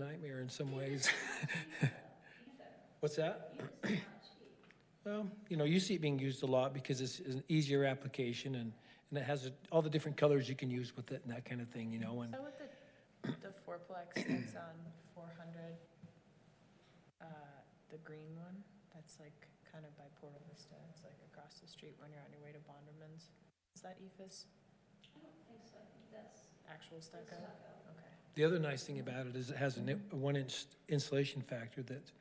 nightmare in some ways. What's that? Well, you know, you see it being used a lot because it's it's an easier application and, and it has all the different colors you can use with it and that kind of thing, you know, and So with the, the fourplex that's on four hundred, uh, the green one, that's like kind of by Porta Vista, it's like across the street when you're on your way to Bonderman's. Is that E EFS? I don't think so, I think that's. Actual stucco? Okay. the other nice thing about it is it has a ni- a one-inch insulation factor that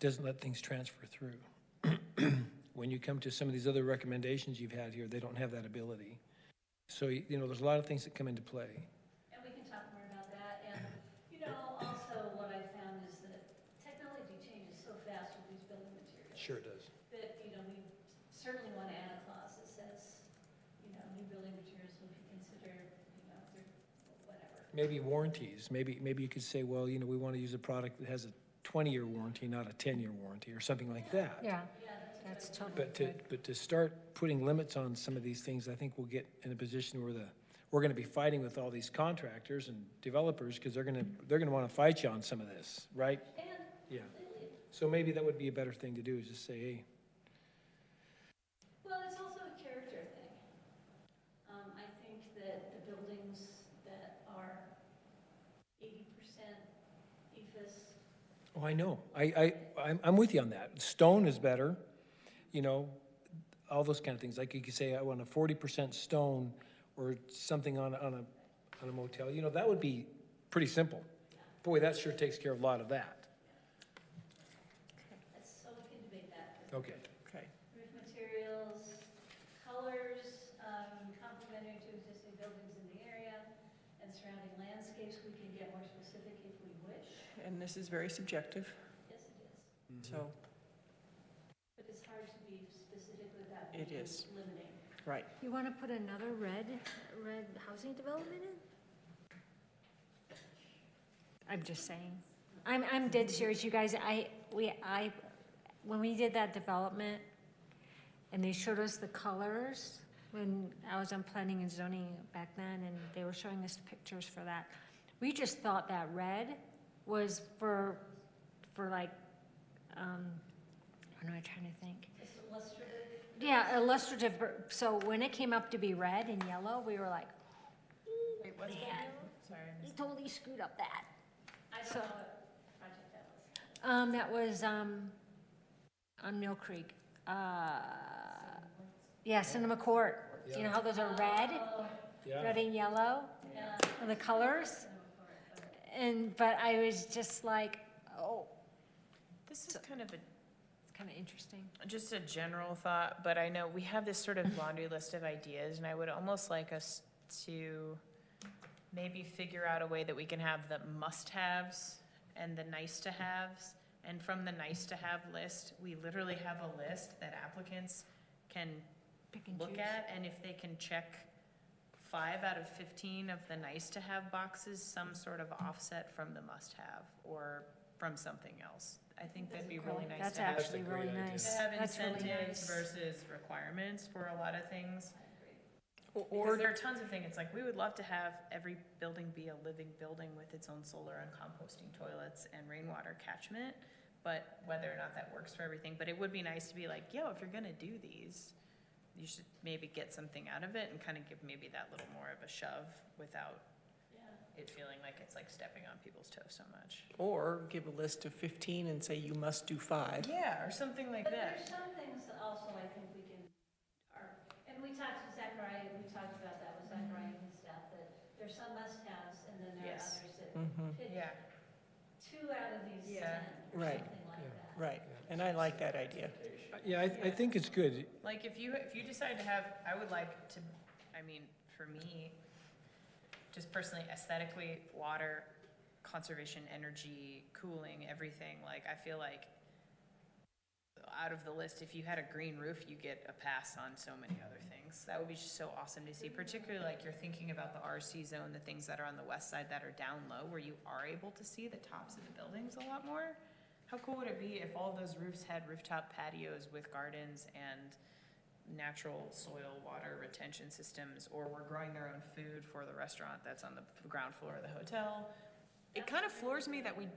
doesn't let things transfer through. When you come to some of these other recommendations you've had here, they don't have that ability. So, you you know, there's a lot of things that come into play. And we can talk more about that, and, you know, also what I found is that technology changes so fast with these building materials. Sure does. That, you know, we certainly want to add a clause that says, you know, new building materials will be considered, you know, through whatever. Maybe warranties, maybe, maybe you could say, well, you know, we want to use a product that has a twenty-year warranty, not a ten-year warranty, or something like that. Yeah, that's totally But to, good. but to start putting limits on some of these things, I think we'll get in a position where the, we're gonna be fighting with all these contractors and developers, because they're gonna, they're gonna want to fight you on some of this, right? And Yeah. So maybe that would be a better thing to do, is just say, hey, Well, it's also a character thing. Um, I think that the buildings that are eighty percent E EFS, oh, I know, I, I, I'm, I'm with you on that. Stone is better, you know, all those kind of things. Like you could say, I want a forty percent stone or something on, a- on a, on a motel, you know, that would be pretty simple. Boy, that sure takes care of a lot of that. that's, so we can debate that. Okay. Okay. Roof materials, colors, um, complementary to existing buildings in the area and surrounding landscapes, we can get more specific if we wish. And this is very subjective, Yes, it is, so, but it's hard to be specific without It being is. limiting. right. You want to put another red, red housing development in? I'm just saying. I'm, I'm dead serious, you guys. I, we, I, when we did that development and they showed us the colors, when I was on planning and zoning back then and they were showing us pictures for that, we just thought that red was for, for like, um, what am I trying to think? It's illustrative, Yeah, illustrative, but- so when it came up to be red and yellow, we were like, Wait, what's that? Man. Sorry. we totally screwed up that. I So- don't know what project that was. Um, that was, um, on Mill Creek, uh, yeah, Cinema Court. You know how those are red, red and yellow, are the colors? And, but I was just like, oh, This is kind of a it's kind of interesting. Just a general thought, but I know we have this sort of laundry list of ideas, and I would almost like us to maybe figure out a way that we can have the must-haves and the nice-to-haves. And from the nice-to-have list, we literally have a list that applicants can Pick and look choose. at, and if they can check five out of fifteen of the nice-to-have boxes, some sort of offset from the must-have, or from something else. I think that'd be really nice That's to have. actually That's a really great idea. To nice. have That's really incentives nice. versus requirements for a lot of things. Because Or, there are tons of things, it's like, we would love to have every building be a living building with its own solar and composting toilets and rainwater catchment. But whether or not that works for everything, but it would be nice to be like, yo, if you're gonna do these, you should maybe get something out of it and kind of give maybe that little more of a shove without it feeling like it's like stepping on people's toes so much. or give a list of 15 and say you must do five. Yeah, or something like But that. there's some things that also I think we can, are, and we talked to Zachariah, we talked about that Mm-hmm. with Zachariah and staff, that there's some must-haves, and then there are Yes. Mm-hmm. others that Mhm. pick Yeah. two out of these Yeah. ten, or Right. something like Yeah. that. Right, and I like that idea. Yeah, I, I think it's good. Like if you, if you decide to have, I would like to, I mean, for me, just personally aesthetically, water, conservation, energy, cooling, everything, like I feel like out of the list, if you had a green roof, you get a pass on so many other things. That would be just so awesome to see, particularly like you're thinking about the RC zone, the things that are on the west side that are down low where you are able to see the tops of the buildings a lot more. How cool would it be if all those roofs had rooftop patios with gardens and natural soil water retention systems, or were growing their own food for the restaurant that's on the ground floor of the hotel? It kind of floors me that we